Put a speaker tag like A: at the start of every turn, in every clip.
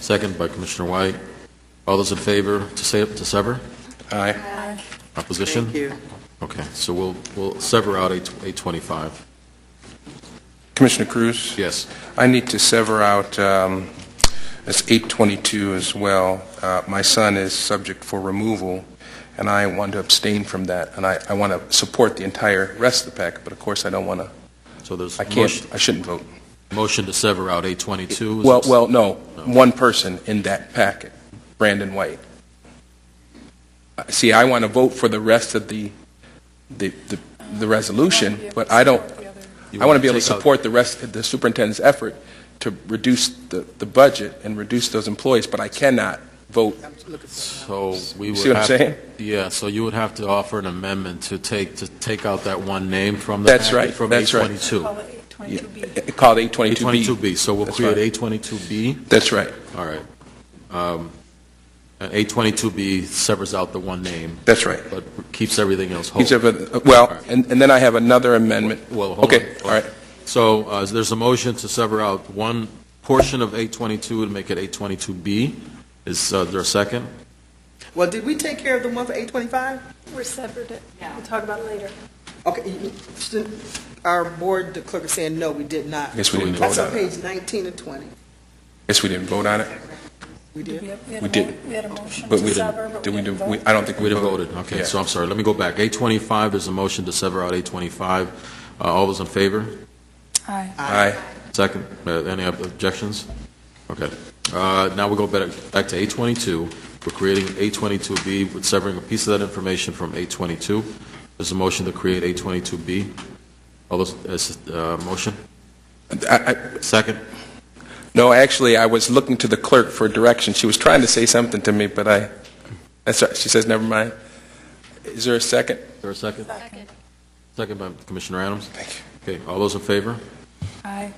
A: Second by Commissioner White. All those in favor to sa- to sever?
B: Aye.
A: Opposition?
C: Thank you.
A: Okay, so we'll, we'll sever out 825.
B: Commissioner Cruz?
A: Yes.
B: I need to sever out, um, that's 822 as well. Uh, My son is subject for removal, and I want to abstain from that, and I I want to support the entire rest of the packet, but of course, I don't want to,
A: So there's
B: I
A: a
B: can't, I shouldn't vote.
A: motion to sever out 822. Is
B: Well,
A: it-
B: well, no,
A: No.
B: one person in that packet, Brandon White. Uh, See, I want to vote for the rest of the, the, the- the resolution, but I don't,
A: You
B: I want to be able to
A: take out-
B: support the rest, the superintendent's effort to reduce the, the budget and reduce those employees, but I cannot vote.
C: I'm looking for-
A: So we
B: You
A: would
B: see what
A: have-
B: I'm saying?
A: Yeah, so you would have to offer an amendment to take, to take out that one name from the.
B: That's
A: packet,
B: right,
A: From
B: that's right.
A: 822.
D: Call it 22B.
B: It- Called 822B.
A: 822B, so we'll
B: That's
A: create
B: right.
A: 822B.
B: That's right,
A: All right. Um, And 822B severs out the one name,
B: that's right.
A: but keeps everything else whole.
B: Each of, it-
A: Oh. All
B: well,
A: right.
B: and, and then I have another amendment.
A: Well, hold on.
B: Okay, all right,
A: So uh, there's a motion to sever out one portion of 822 and make it 822B. Is uh, there a second?
C: Well, did we take care of the one for eight twenty-five?
D: We're separate it. We'll talk about it later.
C: Okay, you- you- shouldn't- our board, the clerk is saying, no, we did not.
B: I guess we didn't vote
C: That's on
B: on it.
C: page nineteen and twenty.
B: Guess we didn't vote on it,
C: We did.
D: had- had
B: We
D: a mo-
B: didn't.
D: We had a motion
B: but
D: to
B: we
D: sever,
B: didn't,
D: but
B: did
D: we
B: we,
D: didn't
B: do- we-
D: vote.
B: I don't think
A: We
B: we
A: didn't
B: voted.
A: voted. Okay,
B: Yeah.
A: so I'm sorry. Let me go back. 825, there's a motion to sever out 825. Uh, All those in favor?
D: Aye.
B: Aye.
A: Second, uh, any ob- objections? Okay. Uh, Now we go back back to 822. We're creating 822B, with severing a piece of that information from 822. There's a motion to create 822B. All those, is, uh, motion?
B: I- I-
A: Second?
B: No, actually, I was looking to the clerk for direction. She was trying to say something to me, but I, that's all right. She says, never mind. Is there a second?
A: Is there a second?
D: Second.
A: Second by Commissioner Adams.
B: Thank you.
A: Okay, all those in favor?
D: Aye.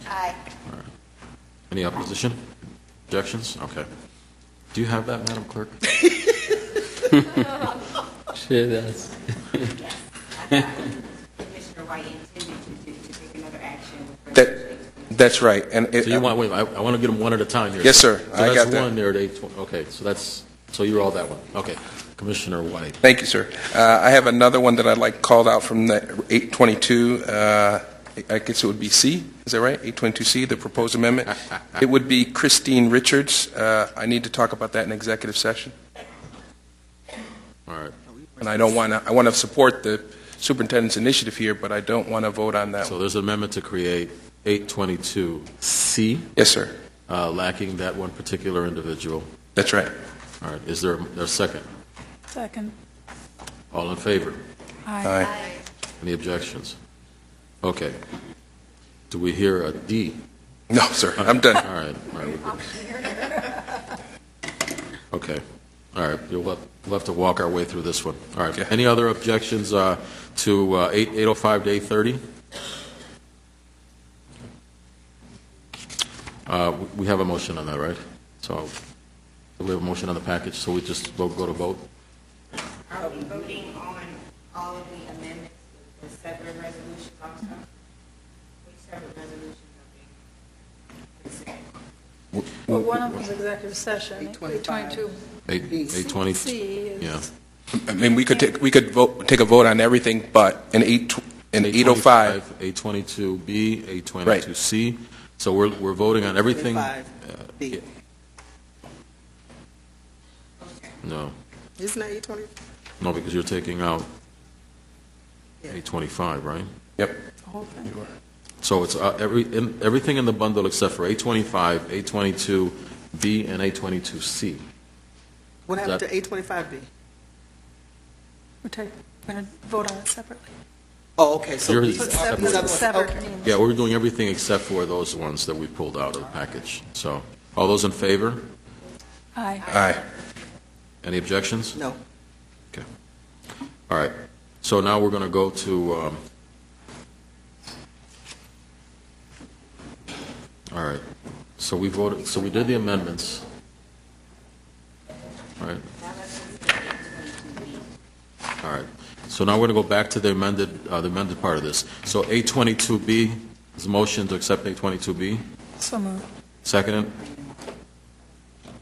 A: Any opposition? Objections? Okay. Do you have that, Madam Clerk?
E: She does.
F: Commissioner White intended to, do- to take another action. with
B: That-
F: regard to-
B: That's right. And it-
A: So you want, wait, I want to get them one at a time here.
B: Yes, sir.
A: So
B: I got
A: that's
B: that.
A: one there at 820, okay, so that's, so you're all that one. Okay. Commissioner White.
B: Thank you, sir. Uh, I have another one that I'd like called out from the 822, uh, I guess it would be C, is that right? 822C, the proposed amendment. It would be Christine Richards. Uh, I need to talk about that in executive session.
A: All right,
B: And I don't want to, I want to support the superintendent's initiative here, but I don't want to vote on that.
A: so
B: one.
A: there's an amendment to create 822C,
B: Yes, sir.
A: uh, lacking that one particular individual.
B: That's right.
A: All right, is there there a second?
D: Second.
A: All in favor?
D: Aye.
B: Aye.
A: Any objections? Okay. Do we hear a D?
B: No, sir, I'm done.
A: All right, all right, we're good. Okay, all right, you'll have, we'll have to walk our way through this one. All
B: Okay.
A: right, any other objections uh, to uh, eight 805 to 830? Uh, we- We have a motion on that, right? So, we have a motion on the package, so we just vote- go to vote?
F: Are we voting on all of the amendments, the separate resolutions also? Which separate resolutions are being?
D: Well, one of them was executive session.
C: 825.
A: 8
C: B.
A: 820?
D: 22C
A: Yeah.
D: is,
B: I mean, we could take, we could vote, take a vote on everything but an eight, oh tw- an 805.
A: 822B, 822C. So we're, we're voting on everything?
C: oh 825.
A: yeah. No,
C: Isn't that eight twenty?
A: no, because you're taking out
C: Yeah.
A: 825, right?
B: Yep.
D: the whole thing.
A: So it's uh, every, in- everything in the bundle except for 825, 822B, and 822C.
C: What happened
A: That-
C: to eight twenty-five B?
D: We're taking, we're going to vote on it separately.
C: Oh, okay, so
A: Yours
C: these
A: is
C: are-
A: separate.
C: these other ones,
D: Severed.
C: okay.
A: Yeah, we're doing everything except for those ones that we pulled out of the package. So, all those in favor?
D: Aye.
B: Aye.
A: Any objections?
C: No,
A: All right, so now we're going to go to, um, all right, so we voted, so we did the amendments, All right? All right, so now we're going to go back to the amended, uh, the amended part of this. So 822B, is a motion to accept 822B,
D: So moved.
A: seconded,